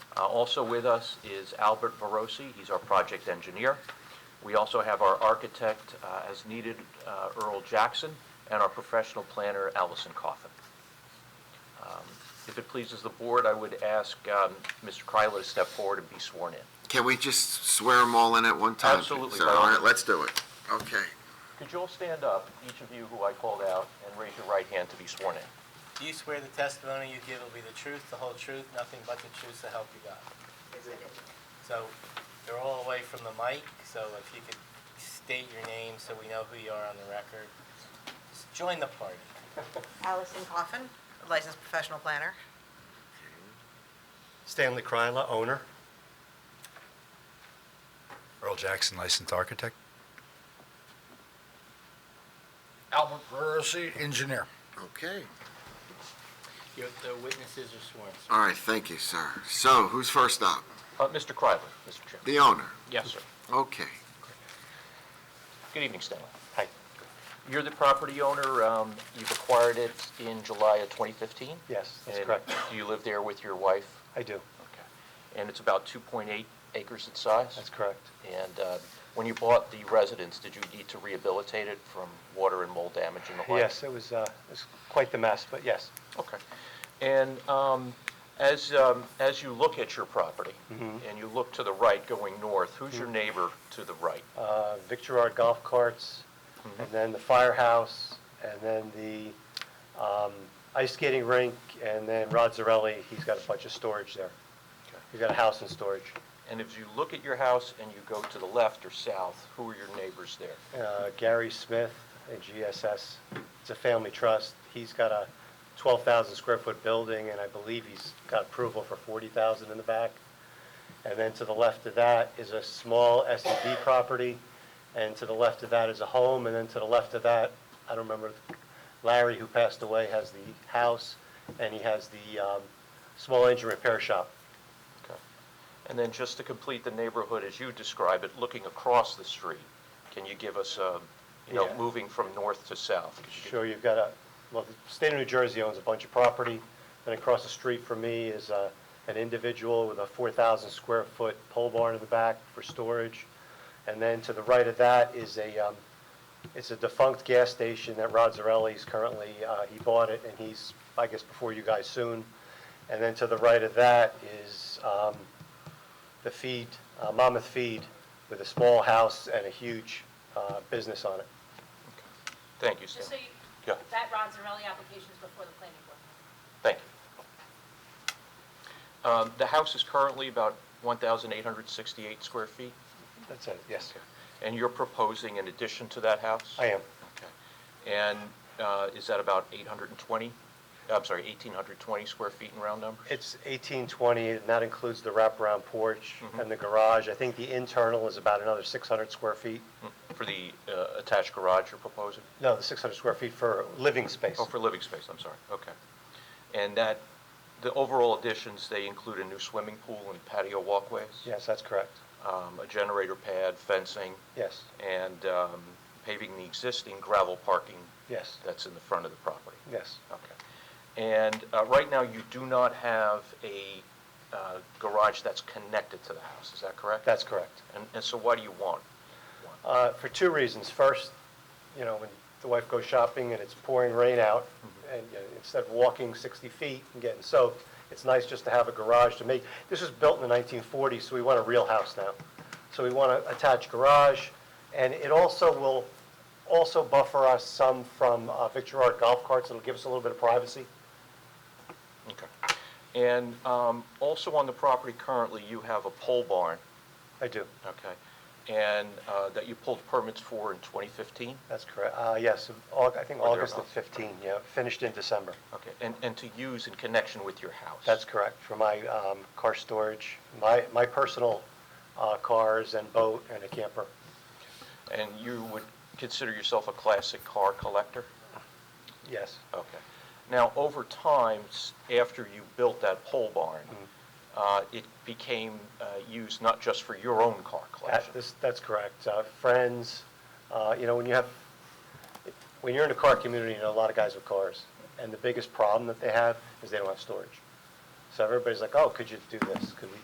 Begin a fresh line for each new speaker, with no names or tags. Uh, Also with us is Albert Verosi, he's our project engineer. We also have our architect, uh, as needed, uh, Earl Jackson, and our professional planner, Allison Coffin. Um, If it pleases the board, I would ask um, Mr. Kryler to step forward and be sworn in.
Can we just swear them all in at one time?
Absolutely,
sir?
by all
All right,
means.
let's do it. Okay.
Could you all stand up, each of you who I called out, and raise your right hand to be sworn in?
Do you swear the testimony you give will be the truth, the whole truth, nothing but the truth, so help you God? So you're all away from the mic, so if you could state your name so we know who you are on the record. Just Join the party.
Allison Coffin, licensed professional planner.
Stanley Kryla, owner.
Earl Jackson, licensed architect.
Albert Verosi, engineer.
Okay.
Your- The witnesses are sworn, sir.
All right, thank you, sir. So who's first up?
Uh, Mr. Kryler, Mr. Chairman.
The owner.
Yes, sir.
Okay.
Good evening, Stanley. Hi. You're the property owner, um, you've acquired it in July of 2015?
Yes, that's
And
correct.
do you live there with your wife?
I do.
Okay. And it's about 2.8 acres in size?
That's correct.
And uh, when you bought the residence, did you need to rehabilitate it from water and mold damage and the like?
Yes, it was, uh, it was quite the mess, but yes.
Okay. And um, as, um, as you look at your property,
Mm-hmm.
and you look to the right going north, who's your neighbor to the right?
Uh, Victorard Golf Carts, and then the firehouse, and then the, um, ice skating rink, and then Rod Zarelli, he's got a bunch of storage there. He's got a house in storage.
And if you look at your house and you go to the left or south, who are your neighbors there?
Uh, Gary Smith at GSS, it's a family trust. He's got a 12,000 square foot building, and I believe he's got approval for 40,000 in the back. And then to the left of that is a small S and D property, and to the left of that is a home, and then to the left of that, I don't remember, Larry, who passed away, has the house, and he has the um, small engine repair shop.
Okay. And then just to complete the neighborhood as you describe it, looking across the street, can you give us, um, you know,
Yeah.
moving from north to south? Could you give-
Sure, you've got a, well, the state of New Jersey owns a bunch of property, and across the street from me is uh, an individual with a 4,000 square foot pole barn in the back for storage. And then to the right of that is a, um, it's a defunct gas station that Rod Zarelli's currently, uh, he bought it, and he's, I guess, before you guys soon. And then to the right of that is um, the feed, uh, Monmouth Feed, with a small house and a huge uh, business on it.
Thank you,
Just so
Stanley.
you,
Yeah,
that Ron Zarelli application is before the planning board.
thank you. Um, The house is currently about 1,868 square feet,
That's it, yes.
and you're proposing an addition to that house?
I am.
Okay. And uh, is that about 820, I'm sorry, 1,820 square feet in round numbers?
It's 1820, and that includes the wraparound porch
Mm-hmm.
and the garage. I think the internal is about another 600 square feet.
For the uh, attached garage you're proposing?
No, the 600 square feet for living space.
Oh, for living space, I'm sorry, okay. And that, the overall additions, they include a new swimming pool and patio walkways?
Yes, that's correct.
um, A generator pad, fencing,
Yes,
and um, paving the existing gravel parking
yes,
that's in the front of the property?
yes.
Okay. And uh, right now, you do not have a uh, garage that's connected to the house, is that correct?
That's correct.
And and so why do you want? one?
Uh, For two reasons. First, you know, when the wife goes shopping and it's pouring rain out, and you know, instead of walking 60 feet and getting soaked, it's nice just to have a garage to make, this was built in the 1940s, so we want a real house now. So we want an attached garage, and it also will also buffer us some from uh, Victor Art golf carts. It'll give us a little bit of privacy.
Okay. And um, also on the property currently, you have a pole barn,
I do.
okay, and uh, that you pulled permits for in 2015?
That's correct. Uh, Yes, Aug- I think
Or
August of
thereabouts.
15, yeah, finished in December.
Okay, and, and to use in connection with your house?
That's correct, for my um, car storage, my, my personal uh, cars and boat and a camper.
And you would consider yourself a classic car collector?
Mm-hmm. Yes,
Okay. Now, over time, s- after you built that pole barn,
Mm-hmm.
uh, it became uh, used not just for your own car
That-
collection?
this- that's correct. Uh, Friends, uh, you know, when you have, when you're in a car community, you know, a lot of guys with cars, and the biggest problem that they have is they don't have storage. So everybody's like, oh, could you do this? Could we